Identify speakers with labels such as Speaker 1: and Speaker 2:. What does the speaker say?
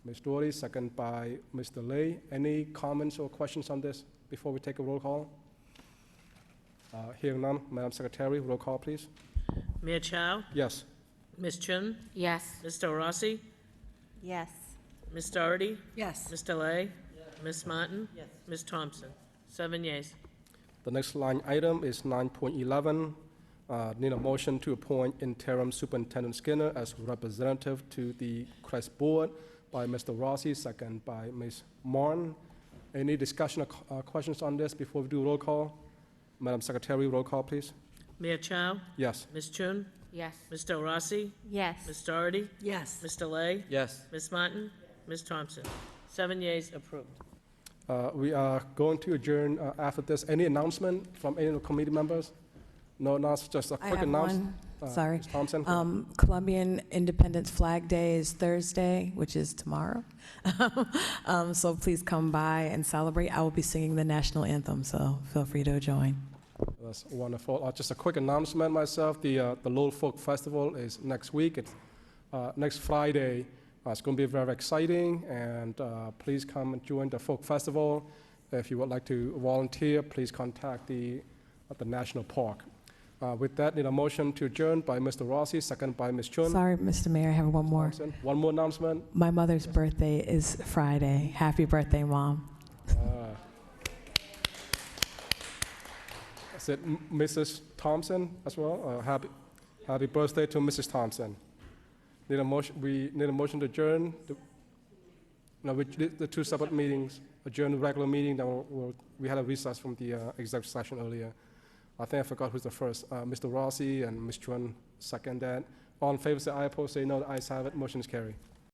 Speaker 1: Ms. Doherty, second by Mr. Lay. Any comments or questions on this before we take a roll call? Uh, Hearing none, Madam Secretary, roll call, please.
Speaker 2: Mia Chow,
Speaker 1: Yes.
Speaker 2: Ms. Chun,
Speaker 3: Yes.
Speaker 2: Ms. Del Rossi,
Speaker 3: Yes.
Speaker 2: Ms. Doherty,
Speaker 3: Yes.
Speaker 2: Ms. Delay, Ms. Martin, Ms. Thompson. Seven yeas.
Speaker 1: The next line item is 9.11. Uh, Need a motion to appoint interim Superintendent Skinner as representative to the CREST Board by Mr. Rossi, second by Ms. Martin. Any discussion or co- uh, questions on this before we do roll call? Madam Secretary, roll call, please.
Speaker 2: Mia Chow,
Speaker 1: Yes.
Speaker 2: Ms. Chun,
Speaker 3: Yes.
Speaker 2: Ms. Del Rossi,
Speaker 3: Yes.
Speaker 2: Ms. Doherty,
Speaker 3: Yes.
Speaker 2: Ms. Delay,
Speaker 4: Yes.
Speaker 2: Ms. Martin, Ms. Thompson. Seven yeas approved.
Speaker 1: Uh, We are going to adjourn uh, after this. Any announcement from any of the committee members? No, not just a
Speaker 5: I
Speaker 1: quick
Speaker 5: have
Speaker 1: announcement.
Speaker 5: one, sorry.
Speaker 1: Ms. Thompson?
Speaker 5: Um, Colombian Independence Flag Day is Thursday, which is tomorrow. Um, So please come by and celebrate. I will be singing the national anthem, so feel free to join.
Speaker 1: That's wonderful. Uh, Just a quick announcement myself, the, uh, the Lowell Folk Festival is next week, it's uh, next Friday. Uh, It's going to be very exciting, and uh, please come and join the Folk Festival. If you would like to volunteer, please contact the, uh, the National Park. Uh, With that, need a motion to adjourn by Mr. Rossi, second by Ms. Chun.
Speaker 5: Sorry, Mr. Mayor, I have one more.
Speaker 1: Thompson. One more announcement.
Speaker 5: My mother's birthday is Friday. Happy birthday, Mom.
Speaker 1: Uh, Is it M- Mrs. Thompson as well? Uh, Happy, happy birthday to Mrs. Thompson. Need a motion, we need a motion to adjourn? the- No, we, the the two separate meetings, adjourn the regular meeting, then we'll- we'll, we had a recess from the uh, executive session earlier. I think I forgot who's the first. Uh, Mr. Rossi and Ms. Chuan second that. All in favor, say aye, opposed, say no. The ayes have it, motion is carried.